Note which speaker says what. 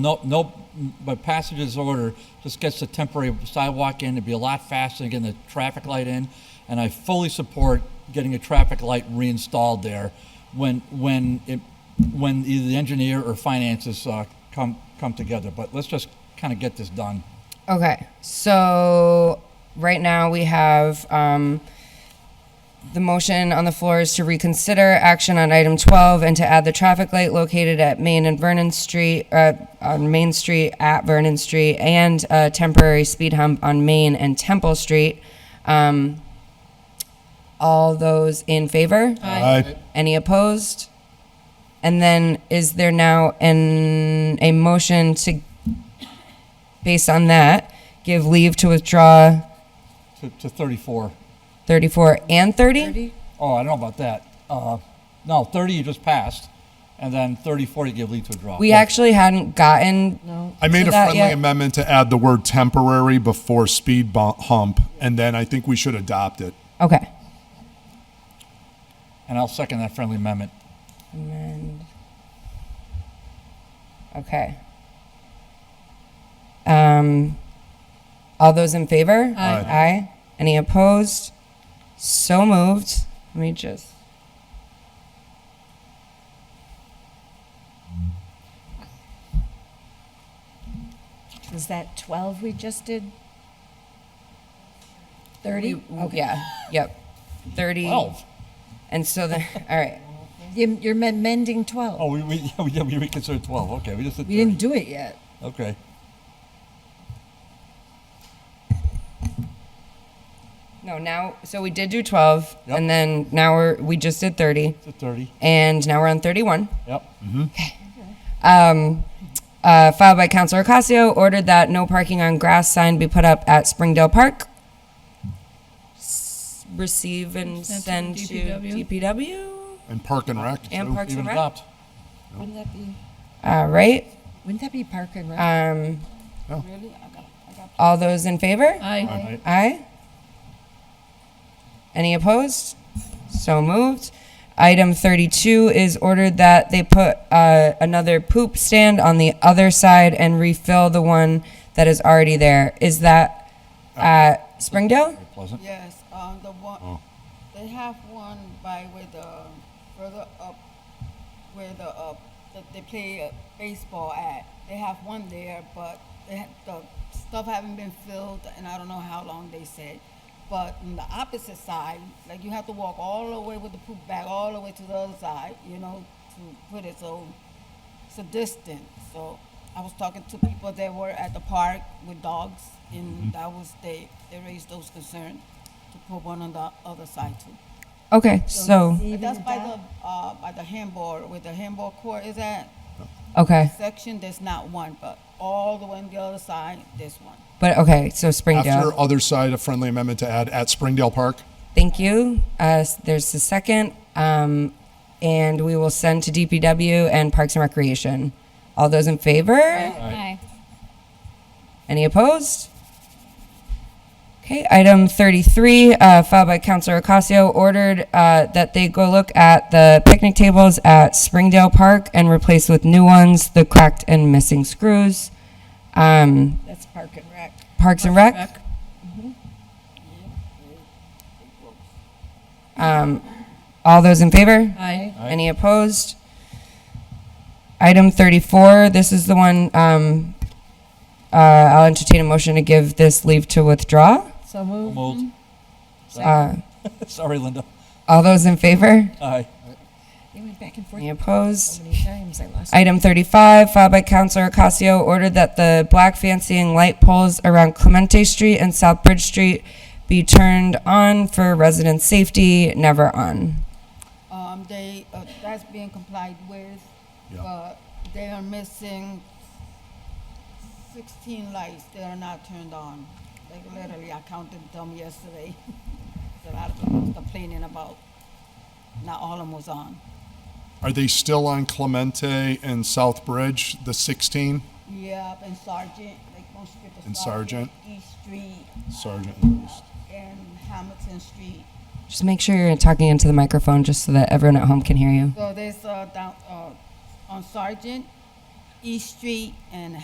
Speaker 1: No, no, but passage of this order just gets the temporary sidewalk in, it'd be a lot faster than getting the traffic light in, and I fully support getting a traffic light reinstalled there when, when it, when either the engineer or finances, uh, come, come together, but let's just kind of get this done.
Speaker 2: Okay, so right now we have, um, the motion on the floor is to reconsider action on item twelve and to add the traffic light located at Main and Vernon Street, uh, on Main Street at Vernon Street and a temporary speed hump on Main and Temple Street. Um, all those in favor?
Speaker 3: Aye.
Speaker 2: Any opposed? And then is there now an, a motion to, based on that, give leave to withdraw
Speaker 1: To, to thirty-four.
Speaker 2: 34 and 30?
Speaker 1: Oh, I don't know about that. Uh, no, thirty you just passed, and then thirty-four you give lead to a draw.
Speaker 2: We actually hadn't gotten.
Speaker 3: I made
Speaker 2: to
Speaker 3: a
Speaker 2: that
Speaker 3: friendly
Speaker 2: yet.
Speaker 3: amendment to add the word temporary before speed bu- hump, and then I think we should adopt it.
Speaker 2: Okay.
Speaker 1: And I'll second that friendly amendment.
Speaker 2: Amend. Okay. Um, all those in favor?
Speaker 3: Aye.
Speaker 2: Aye. Any opposed? So moved. Let me just.
Speaker 4: Was that 12 we just did? 30?
Speaker 2: Okay. oh, Yeah. Yep. 30.
Speaker 1: Twelve.
Speaker 2: And so then, all right.
Speaker 4: You- You're amending 12.
Speaker 1: Oh, we, we, yeah, we reconsidered twelve, okay, we just did
Speaker 4: We didn't
Speaker 1: thirty.
Speaker 4: do it yet.
Speaker 1: Okay.
Speaker 2: No, now, so we did do 12,
Speaker 1: Yep.
Speaker 2: and then now we're, we just did 30,
Speaker 1: To 30,
Speaker 2: and now we're on 31.
Speaker 1: yep.
Speaker 2: Um, uh, filed by Councilor Ocasio, ordered that no parking on grass sign be put up at Springdale Park. S- Receive and send
Speaker 5: Send
Speaker 2: to
Speaker 5: to
Speaker 2: DPW
Speaker 3: And Park and Rec.
Speaker 2: and
Speaker 3: too.
Speaker 2: Parks
Speaker 1: Even
Speaker 2: and Rec.
Speaker 1: adopt.
Speaker 4: Wouldn't that be,
Speaker 2: All right,
Speaker 4: wouldn't that be Park and Rec?
Speaker 2: um,
Speaker 3: Oh.
Speaker 2: all those in favor?
Speaker 5: Aye.
Speaker 2: Aye. Any opposed? So moved. Item 32 is ordered that they put uh, another poop stand on the other side and refill the one that is already there. Is that at Springdale?
Speaker 1: Very pleasant.
Speaker 6: Yes, um, the one, they have one by where the, further up, where the, uh, that they play uh, baseball at. They have one there, but they had, the stuff haven't been filled, and I don't know how long they said. But on the opposite side, like you have to walk all the way with the poop bag, all the way to the other side, you know, to put it, so it's a distance. So I was talking to people that were at the park with dogs, and that was they they raised those concerns to put one on the other side too.
Speaker 2: Okay, so,
Speaker 4: Even
Speaker 6: that's by
Speaker 4: adopt-
Speaker 6: the uh, by the handball where the handball court is at
Speaker 2: okay,
Speaker 6: section. There's not one, but all the way on the other side, there's one.
Speaker 2: but okay, so
Speaker 3: After
Speaker 2: Springdale.
Speaker 3: other side, a friendly amendment to add at Springdale Park.
Speaker 2: Thank you. Uh, s- There's the second, um, and we will send to DPW and Parks and Recreation. All those in favor?
Speaker 5: Aye.
Speaker 2: Any opposed? Okay, item 33, uh, filed by Councilor Ocasio, ordered uh, that they go look at the picnic tables at Springdale Park and replace with new ones the cracked and missing screws. Um,
Speaker 4: That's Park and Rec.
Speaker 2: Parks and Rec? Um, All those in favor?
Speaker 5: Aye.
Speaker 2: Any opposed? Item 34, this is the one, um, uh, I'll entertain a motion to give this leave to withdraw.
Speaker 4: So move.
Speaker 1: Moved.
Speaker 2: Uh,
Speaker 1: Sorry, Linda.
Speaker 2: All those in favor?
Speaker 1: Aye.
Speaker 4: They went back and forth
Speaker 2: Any opposed?
Speaker 4: so many times, I lost.
Speaker 2: Item 35, filed by Counselor Ocasio, ordered that the black fancying light poles around Clemente Street and South Bridge Street be turned on for resident safety, never on.
Speaker 6: Um, they uh, that's being complied with,
Speaker 3: Yeah.
Speaker 6: but they are missing 16 lights that are not turned on. Like literally, I counted them yesterday. a lot of people was complaining about not all of them was on.
Speaker 3: Are they still on Clemente and South Bridge, the 16?
Speaker 6: Yep, and Sergeant, like most people.
Speaker 3: And
Speaker 6: East Street
Speaker 3: Sergeant. at least.
Speaker 6: and Hamilton Street.
Speaker 2: Just make sure you're talking into the microphone just so that everyone at home can hear you.
Speaker 6: So there's uh, down uh, on Sergeant, East Street and